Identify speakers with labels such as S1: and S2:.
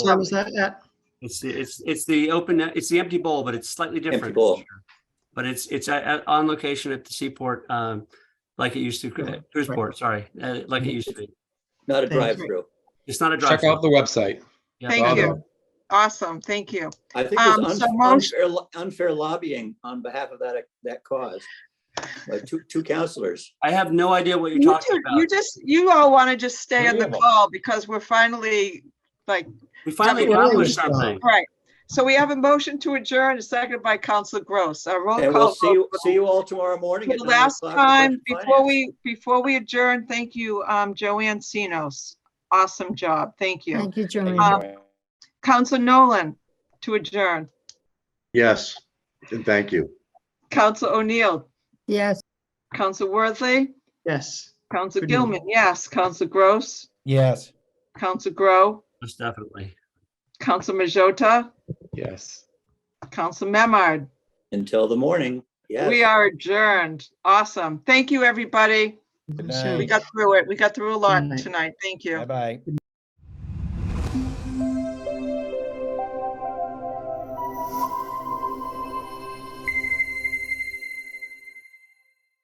S1: Where was that at?
S2: It's the, it's, it's the open, it's the empty bowl, but it's slightly different. this
S3: bowl.
S2: year. But it's, it's at- at- on location at the seaport, um, like it used to,
S1: Right.
S2: cruise port, sorry, uh, like it used to be.
S3: Not a
S1: Thank you.
S3: drive-through.
S2: It's not a drive.
S4: Check out the website.
S5: Thank
S4: Bravo.
S5: you. Awesome, thank you.
S3: I think there's
S5: Um, so
S3: unf-
S5: most-
S3: unfair, lo- unfair lobbying on behalf of that, that cause. Like two, two counselors.
S2: I have no idea what you're
S5: You
S2: talking
S5: two, you
S2: about.
S5: just, you all want to just stay on the
S4: Unbelievable.
S5: call because we're finally, like,
S2: We finally
S5: Something
S2: accomplished
S1: wrong.
S2: something.
S5: right. So we have a motion to adjourn, seconded by Council Gross. Our roll
S3: And
S5: call.
S3: we'll see, you.
S5: vote.
S3: see you all tomorrow morning.
S5: For
S3: at
S5: the
S3: nine
S5: last
S3: o'clock for Budget
S5: time, before
S3: Finance.
S5: we, before we adjourn, thank you, um, Joanne Sinos. Awesome job, thank you.
S6: Thank you, Joanne.
S5: Um, Council Nolan to adjourn,
S7: Yes, and thank you.
S5: Council O'Neill,
S6: Yes.
S5: Council Worthley,
S1: Yes.
S5: Council
S1: Good night.
S5: Gilman, yes, Council Gross,
S8: Yes.
S5: Council Grow,
S2: Most definitely.
S5: Council Majota,
S4: Yes.
S5: Council Memard.
S3: Until the morning. Yes.
S5: We are adjourned. Awesome. Thank you, everybody.
S8: night.
S5: We got through it. We got through a lot
S1: Good night.
S5: tonight. Thank you.
S8: Bye-bye.